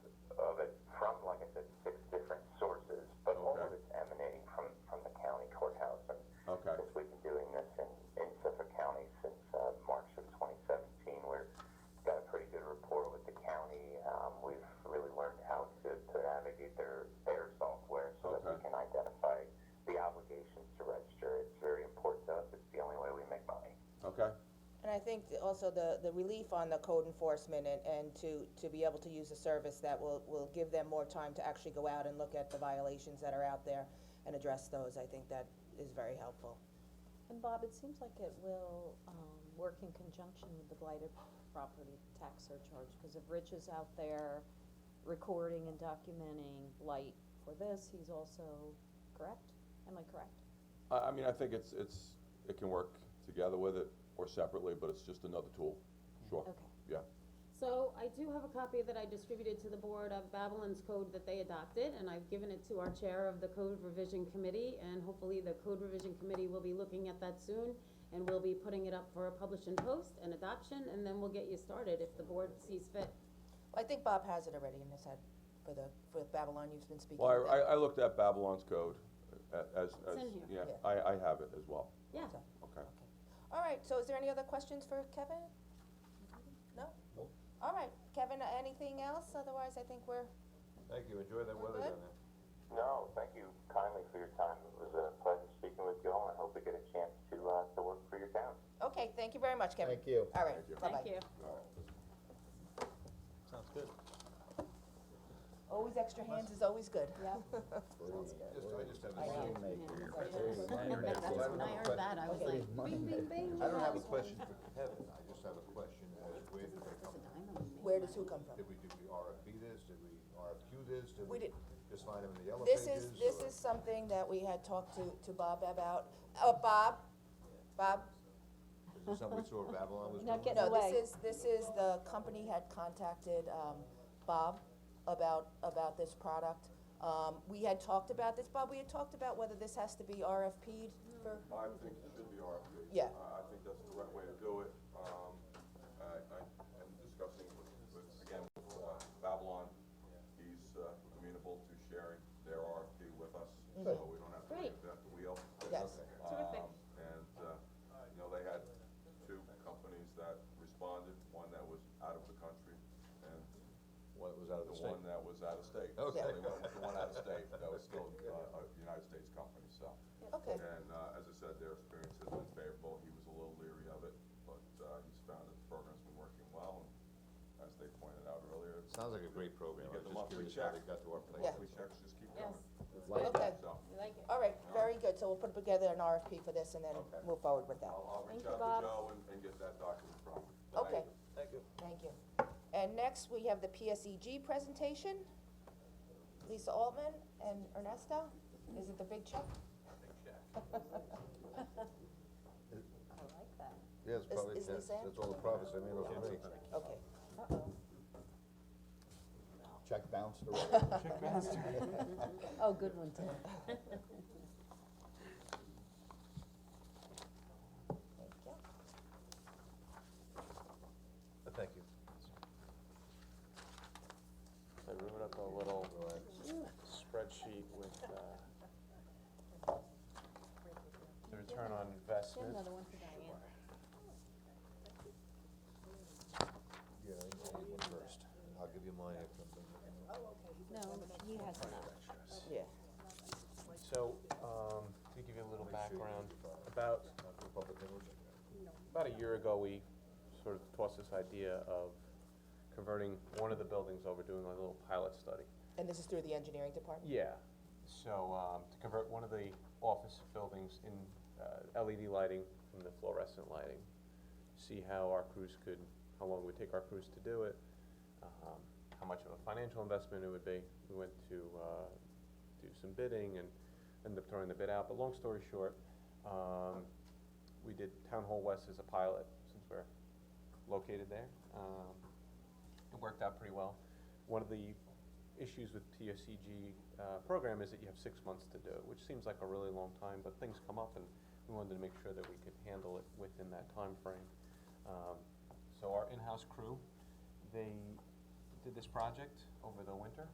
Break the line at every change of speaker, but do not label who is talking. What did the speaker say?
uh, Um,
think that also the, the relief on the code enforcement and, and to, to be able to use a service that will, will give them more time to actually go out and look at the violations that are out there and address those, I think that is very helpful.
And Bob, it seems like it will, um, work in conjunction with the blighted property tax surcharge, cause if Rich is out there recording and documenting blight for this, he's also, correct? Am I correct?
I, I mean, I think it's, it's, it can work together with it or separately, but it's just another tool, sure,
Okay.
yeah.
So I do have a copy that I distributed to the board of Babylon's code that they adopted, and I've given it to our chair of the code revision committee, and hopefully the code revision committee will be looking at that soon, and we'll be putting it up for a publish and post and adoption, and then we'll get you started if the board sees fit.
I think Bob has it already in his head for the, for Babylon, you've been speaking
Well,
with
I, I,
them.
I looked at Babylon's code a- as, as,
in here.
yeah,
Yeah.
I, I have it as well,
Yeah,
okay.
All right, so is there any other questions for Kevin? No? All right, Kevin, anything else? Otherwise, I think we're,
Thank you, enjoy that
We're
weather
good?
down there.
No, thank you kindly for your time. It was a pleasure speaking with you all, and I hope we get a chance to, uh, to work for your town.
okay, thank you very much, Kevin.
Thank you.
All right,
Thank you.
bye-bye.
thank you.
Sounds good.
Always extra hands is always good.
Yep.
Just, I just have a.
I know.
question.
When I heard that, I was like, bing, bing, bing.
I don't have a question for Kevin, I just have a question as where did they come from?
Where does who come from?
Did we, did we RFP this, did we RFQ this, did
We
we
did-
just find them in the yellow
This
pages?
is, this
or-
is something that we had talked to, to Bob about, oh, Bob, Bob?
Is this something we saw Babylon was doing?
Now get
No,
away.
this is, this is, the company had contacted, um, Bob about, about this product. Um, we had talked about this, Bob, we had talked about whether this has to be RFP'd
I
for,
think it should be RFP.
Yeah.
Uh, I think that's the right way to do it. Um, I, I am discussing with, with, again, with uh, Babylon. He's uh, amenable to sharing their RFP with us, so we don't have to
Mm. Great.
reinvent the wheel.
Yes.
Terrific.
Um, And, uh, you know, they had two companies that responded, one that was out of the country and
One that was out of the
the
state.
one that was out of state. So
Okay.
they went with The one out of state, that was still uh, a United States company, so.
okay,
And, uh, as I said, their experience has been favorable, he was a little leery of it, but, uh, he's found that the program's been working well, and as they pointed out earlier, it's
Sounds like a great program,
You
I
get
was
the
just
monthly
curious how they
check.
got to our place.
Yeah.
monthly checks just keep
Yes,
coming,
okay,
so.
we like it.
all right, very good, so we'll put together an RFP for this and then
Okay.
move forward with that.
I'll, I'll reach
Thank you,
out
Bob.
to Joe and, and get that document from him.
Okay,
Thank you.
thank you. And next, we have the PSEG presentation. Lisa Altman and Ernesto, is it the big check?
I like that.
Yeah, it's
Is-
probably,
is
that's,
Lisa in?
that's all the profits they made off of me.
Okay.
Check bounced already.
Oh, good one, Tim.
Thank you.
Uh, Thank you.
I wrote up a little spreadsheet with, uh, the return on investment.
Another one for Diane.
Yeah, I need one first, I'll give you uh, mine after I'm done.
No, he has not.
Yeah.
So, um, to give you a little
Make sure you
background,
do the-
about
Not for public knowledge.
about a year ago, we sort of tossed this idea of converting one of the buildings over, doing a little pilot study.
And this is through the engineering department?
Yeah, so, um, to convert one of the office buildings in, uh, LED lighting from the fluorescent lighting. See how our crews could, how long it would take our crews to do it, um, how much of a financial investment it would be. We went to, uh, do some bidding and ended up throwing the bid out, but long story short, um, we did Town Hall West as a pilot, since we're located there. Um, it worked out pretty well. One of the issues with TSCG uh, program is that you have six months to do it, which seems like a really long time, but things come up, and we wanted to make sure that we could handle it within that timeframe. Um, so our in-house crew, they did this project over the winter,